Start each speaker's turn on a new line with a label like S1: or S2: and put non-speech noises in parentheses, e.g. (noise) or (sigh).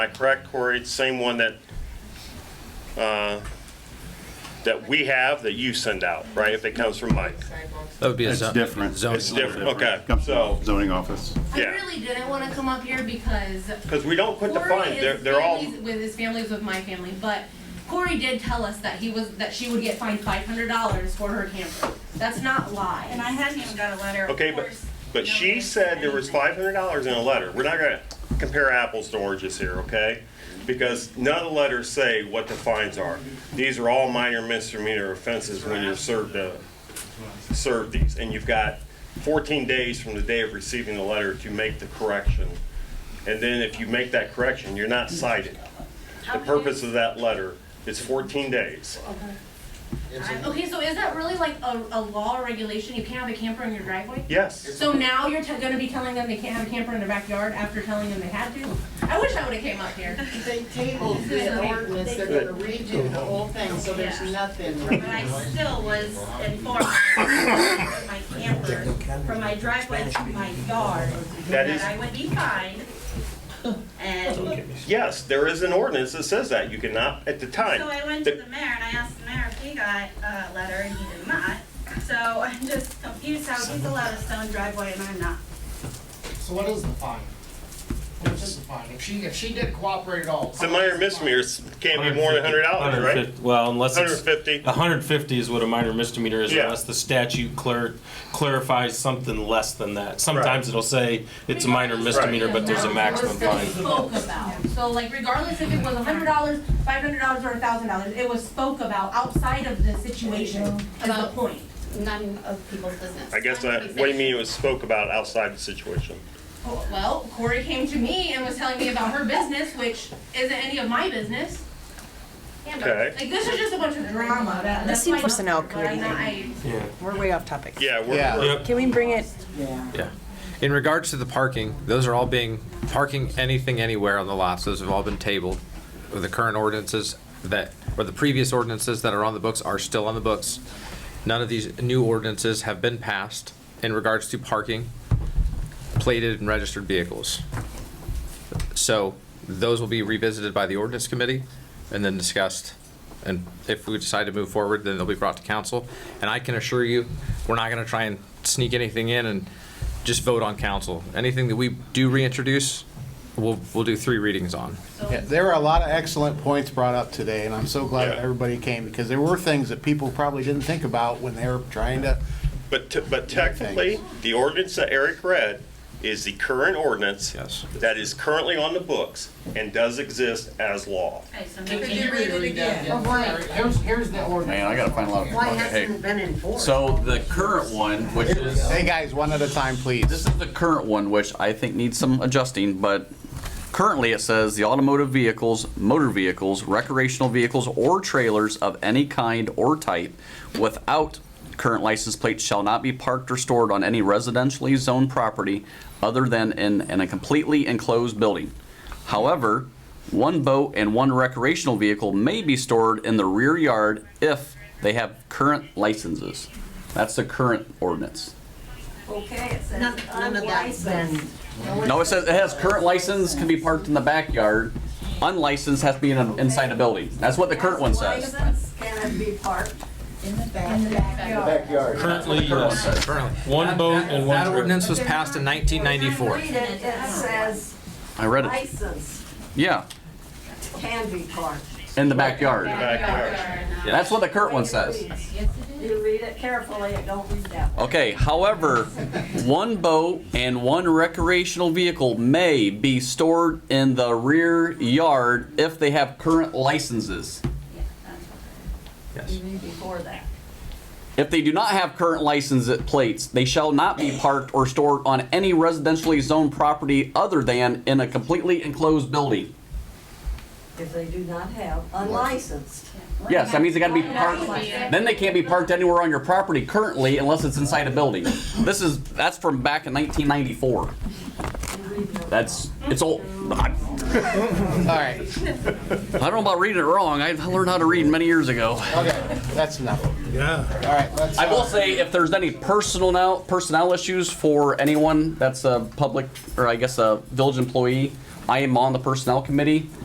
S1: I correct, Corey? It's the Same one that, uh, that we have, that you send out, right? If it comes from Mike.
S2: sidewalks.
S3: That would be a
S4: It's
S3: zo-
S4: different. a
S3: zoning. one.
S4: little
S1: different, okay,
S4: Comes from
S1: so-
S4: Zoning office.
S2: I
S1: Yeah.
S2: really didn't want to come up here because
S1: Because we don't put the
S2: Corey
S1: fine,
S2: is
S1: they're, they're all,
S2: families- with his family's with my family, but Corey did tell us that he was that she would get fined five hundred dollars for her camper. That's not lie.
S5: And I hadn't even got a letter. of
S1: okay, but,
S5: course,
S1: but she
S5: nobody
S1: said there was
S5: anything.
S1: five hundred dollars in a letter. We're not gonna compare apples to oranges here, okay? Because none of the letters say what the fines are. These are all minor misdemeanor offenses when you're served, uh, served these. And you've got fourteen days from the day of receiving the letter to make the correction. And then if you make that correction, you're not cited. The purpose of that letter is fourteen days.
S2: okay, so is that really like a, a law or regulation? You can't have a camper in your driveway?
S1: Yes.
S2: So now you're t- going to be telling them they can't have a camper in their backyard after telling them they had to? I wish I would have came up here.
S6: They tabled the ordinance, they're gonna redo the whole thing, so there's
S5: Yeah.
S6: nothing.
S5: But I still was informed (coughs) from my camper, from my driveway to my yard,
S1: That
S5: that
S1: is-
S5: I would be fined. And so
S1: Yes, there is an ordinance that says that. You cannot, at the time.
S5: I went to the mayor and I asked the mayor if he got a letter and he did not. So I'm just confused how he's allowed a stone driveway and I'm not.
S7: So what is the fine? What is the fine? If she, if she did cooperate at all.
S1: It's a minor misdemeanor. It's- Can't be more than hundred dollars, right?
S8: 150 Well, unless
S1: Hundred
S8: it's,
S1: fifty.
S8: 150 is what a minor misdemeanor is
S1: Yeah.
S8: unless the statute clar- clarifies something less than that. Sometimes it'll say it's a minor misdemeanor, but there's a maximum fine.
S2: Spoke about. So like regardless if it was a hundred dollars, five hundred dollars, or a thousand dollars, it was spoke about outside of the situation is the
S9: About-
S2: point.
S9: none of people's business.
S1: I guess I, what do you mean it was spoke about outside the situation?
S2: Well, Corey came to me and was telling me about her business, which isn't any of my business. Yeah, but,
S1: Okay.
S2: Like, this is just a bunch of drama. That- That's
S10: seems
S2: why-
S10: personnel
S2: but I'm not- I-
S8: Yeah.
S10: We're way off topic.
S1: Yeah, we're, we're-
S10: Can we bring it?
S3: Yeah. In regards to the parking, those are all being, parking anything anywhere on the lots, those have all been tabled. The current ordinances that, or the previous ordinances that are on the books are still on the books. None of these new ordinances have been passed in regards to parking plated and registered vehicles. So those will be revisited by the ordinance committee and then discussed. And if we decide to move forward, then they'll be brought to council. And I can assure you, we're not gonna try and sneak anything in and just vote on council. Anything that we do reintroduce, we'll, we'll do three readings on.
S6: So-
S11: Yeah, there were a lot of excellent points brought up today, and I'm so glad that
S1: Yeah.
S11: everybody came, because there were things that people probably didn't think about when they were trying to,
S1: but, t- but technically, the ordinance that Eric read is the current ordinance
S3: Yes.
S1: that is currently on the books and does exist as law.
S5: Okay, so
S7: Can
S5: maybe
S7: can you read it again?
S6: But why,
S7: Here's, here's the ordinance.
S4: Man, I gotta find a lot of.
S6: why
S4: okay,
S6: hasn't
S4: hey.
S6: it been enforced?
S12: So the current one, which is,
S11: hey, guys, one at a time, please.
S12: this is the current one, which I think needs some adjusting, but currently it says the automotive vehicles, motor vehicles, recreational vehicles, or trailers of any kind or type without current license plates shall not be parked or stored on any residentially zoned property other than in, in a completely enclosed building. However, one boat and one recreational vehicle may be stored in the rear yard if they have current licenses. That's the current ordinance.
S5: Okay, it says
S6: None, none of that's been,
S12: No, it says it has current license can be parked in the backyard. Unlicensed has to be in a, inside a building. That's what the current one says.
S5: License can be parked
S6: in the back,
S5: backyard.
S8: Currently, yes.
S3: Currently,
S8: one boat and one
S3: That
S8: trailer.
S3: ordinance was passed in 1994.
S5: it, it says
S12: I read it.
S6: license
S12: Yeah,
S6: can be parked.
S12: in the backyard.
S1: Backyard.
S12: That's what the current one says.
S5: You read it carefully, it don't read that.
S12: Okay, however, one boat and one recreational vehicle may be stored in the rear yard if they have current licenses.
S3: Yes.
S5: Before that.
S12: If they do not have current license plates, they shall not be parked or stored on any residentially zoned property other than in a completely enclosed building.
S6: If they do not have unlicensed.
S12: Yes, that means they gotta be parked, then they can't be parked anywhere on your property currently unless it's inside a building. This is, that's from back in nineteen ninety-four. That's, it's old. I
S11: All right,
S12: don't know about reading it wrong. I learned how to read many years ago.
S11: okay, that's enough. Yeah. All right, let's,
S12: I will
S11: uh,
S12: say, if there's any personal now personnel issues for anyone that's a public or I guess a village employee, I am on the personnel committee.